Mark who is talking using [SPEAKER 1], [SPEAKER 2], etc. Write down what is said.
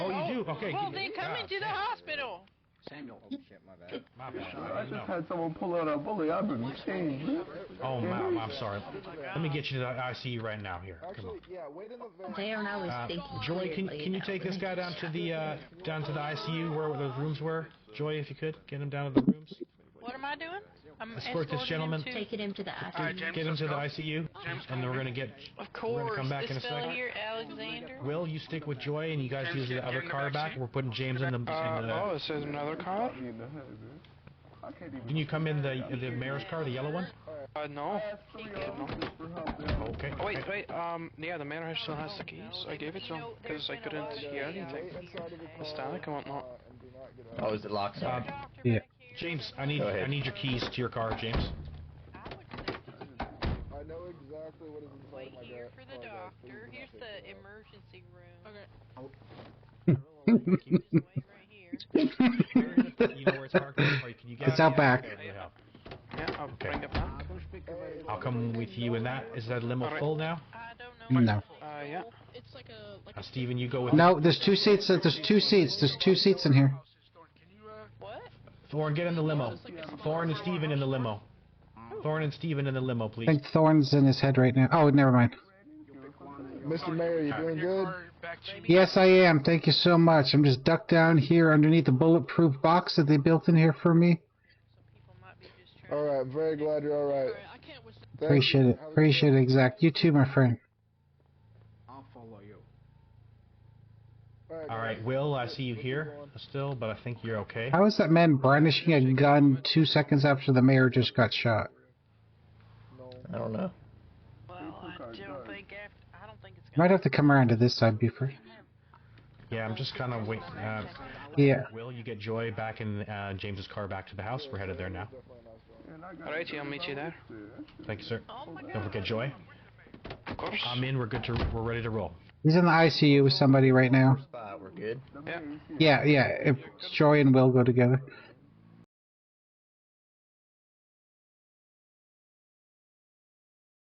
[SPEAKER 1] Oh, Okay.
[SPEAKER 2] Oh, Well, they come
[SPEAKER 1] God
[SPEAKER 2] into the
[SPEAKER 1] damn.
[SPEAKER 2] hospital.
[SPEAKER 3] Samuel.
[SPEAKER 4] Oh shit, my bad.
[SPEAKER 1] My
[SPEAKER 4] I
[SPEAKER 1] bad.
[SPEAKER 4] just
[SPEAKER 1] No.
[SPEAKER 4] had someone pull out a bully. I've been changed.
[SPEAKER 1] Oh my, I'm sorry.
[SPEAKER 2] my
[SPEAKER 1] Let me get you to the ICU right now. Here, come
[SPEAKER 3] Actually,
[SPEAKER 1] on.
[SPEAKER 3] yeah, wait in the van.
[SPEAKER 5] They are always
[SPEAKER 1] Uh,
[SPEAKER 5] thinking.
[SPEAKER 1] Joy, can
[SPEAKER 5] clearly
[SPEAKER 1] can you
[SPEAKER 5] about
[SPEAKER 1] take this
[SPEAKER 5] me.
[SPEAKER 1] guy down to the uh, down to the ICU where those rooms were? Joy, if you could, get him down to the rooms.
[SPEAKER 2] What am I doing? I'm
[SPEAKER 1] Escort this
[SPEAKER 2] escorting him
[SPEAKER 1] gentleman.
[SPEAKER 2] to-
[SPEAKER 5] Taking him to the
[SPEAKER 6] All right,
[SPEAKER 5] ICU.
[SPEAKER 6] James.
[SPEAKER 1] Get him
[SPEAKER 6] let's
[SPEAKER 1] to the
[SPEAKER 6] go.
[SPEAKER 1] ICU,
[SPEAKER 6] James,
[SPEAKER 1] and then we're gonna get
[SPEAKER 2] Of
[SPEAKER 1] We're gonna
[SPEAKER 2] course,
[SPEAKER 1] come back
[SPEAKER 2] this
[SPEAKER 1] in a
[SPEAKER 2] fella
[SPEAKER 1] second.
[SPEAKER 2] here, Alexander.
[SPEAKER 1] Will, you stick with Joy, and you guys
[SPEAKER 6] James,
[SPEAKER 1] use the
[SPEAKER 6] get-
[SPEAKER 1] other
[SPEAKER 6] get in the
[SPEAKER 1] car
[SPEAKER 6] back
[SPEAKER 1] back.
[SPEAKER 6] seat.
[SPEAKER 1] We're putting James in the. In
[SPEAKER 6] Uh, oh,
[SPEAKER 1] the
[SPEAKER 6] this is another car?
[SPEAKER 4] In the head, man. I can't even.
[SPEAKER 1] can you come in the the mayor's car, the yellow one?
[SPEAKER 6] Uh, no.
[SPEAKER 4] Ask three officers for help now.
[SPEAKER 1] Okay.
[SPEAKER 6] Oh, wait, wait, um, yeah, the manor still has the keys. I gave it to him, because I couldn't hear
[SPEAKER 3] Wait
[SPEAKER 6] anything.
[SPEAKER 3] inside of the car.
[SPEAKER 6] The static and whatnot.
[SPEAKER 3] uh, and do not get out.
[SPEAKER 7] Oh, is it locked?
[SPEAKER 1] Uh,
[SPEAKER 2] Doctor
[SPEAKER 8] Yeah.
[SPEAKER 2] back here.
[SPEAKER 1] James, I need
[SPEAKER 7] Go ahead.
[SPEAKER 1] I need your keys to your car, James.
[SPEAKER 2] I would say
[SPEAKER 3] I know exactly what is inside
[SPEAKER 2] wait
[SPEAKER 3] my
[SPEAKER 2] here
[SPEAKER 3] car.
[SPEAKER 2] for the
[SPEAKER 3] Apologize.
[SPEAKER 2] doctor.
[SPEAKER 3] Please do not
[SPEAKER 2] Here's
[SPEAKER 3] take
[SPEAKER 2] the
[SPEAKER 3] it out.
[SPEAKER 2] emergency room. Okay.
[SPEAKER 8] it's
[SPEAKER 2] Just wait right here.
[SPEAKER 1] You know where it's parked, or can you get
[SPEAKER 8] out back.
[SPEAKER 1] Okay, really help.
[SPEAKER 6] Yeah, I'll bring it back.
[SPEAKER 1] I'll come with you in that. Is that limo
[SPEAKER 6] Alright.
[SPEAKER 1] full now?
[SPEAKER 2] I don't know.
[SPEAKER 8] No.
[SPEAKER 6] Uh, yeah.
[SPEAKER 9] It's like a like
[SPEAKER 1] Uh,
[SPEAKER 9] a
[SPEAKER 1] Steven, you go with
[SPEAKER 8] No, there's two seats. uh, There's two seats. There's two seats in here.
[SPEAKER 2] What?
[SPEAKER 1] Thorn. Get in the limo.
[SPEAKER 9] It's like a small
[SPEAKER 1] Thorn and Steven in the limo. Thorn and Steven in the limo,
[SPEAKER 8] I
[SPEAKER 1] please.
[SPEAKER 8] think Thorn's in his head right now. Oh, never mind.
[SPEAKER 3] Mr. Oh, Mayor, you doing good?
[SPEAKER 8] Yes, I am. Thank you so much. I'm just ducked down here underneath the bulletproof box that they built in here for me.
[SPEAKER 2] Some people might be just trying.
[SPEAKER 3] All right, I'm very glad you're all right.
[SPEAKER 9] I can't wish
[SPEAKER 3] Thank you.
[SPEAKER 8] Appreciate it.
[SPEAKER 3] Have a good
[SPEAKER 8] Appreciate
[SPEAKER 3] day.
[SPEAKER 8] it, exact. You too, my friend.
[SPEAKER 4] I'll follow you.
[SPEAKER 1] All right,
[SPEAKER 3] guys.
[SPEAKER 1] Will. I see you
[SPEAKER 3] What's
[SPEAKER 1] here
[SPEAKER 3] going
[SPEAKER 1] still, but I think you're okay.
[SPEAKER 8] How is that man brandishing a gun two seconds after the mayor just got shot?
[SPEAKER 3] on?
[SPEAKER 7] I don't know.
[SPEAKER 2] Well, I don't think after. I don't think it's gonna.
[SPEAKER 8] Might have to come around to this side, Buford.
[SPEAKER 1] Yeah, I'm just kind of waiting. Uh,
[SPEAKER 8] Yeah.
[SPEAKER 1] Will, you get Joy back in uh, James's car back to the house. We're headed there now.
[SPEAKER 3] Definitely not strong.
[SPEAKER 4] And I got
[SPEAKER 6] Alrighty, I'll meet you there.
[SPEAKER 1] Thank you, sir.
[SPEAKER 2] Oh my
[SPEAKER 1] Don't
[SPEAKER 2] God.
[SPEAKER 1] forget Joy.
[SPEAKER 6] Of course.
[SPEAKER 1] I'm in. We're good to. We're ready to roll.
[SPEAKER 8] He's in the ICU with somebody right now.
[SPEAKER 7] Spot, we're good.
[SPEAKER 6] Yeah.
[SPEAKER 8] Yeah, yeah. If Joy and Will go together.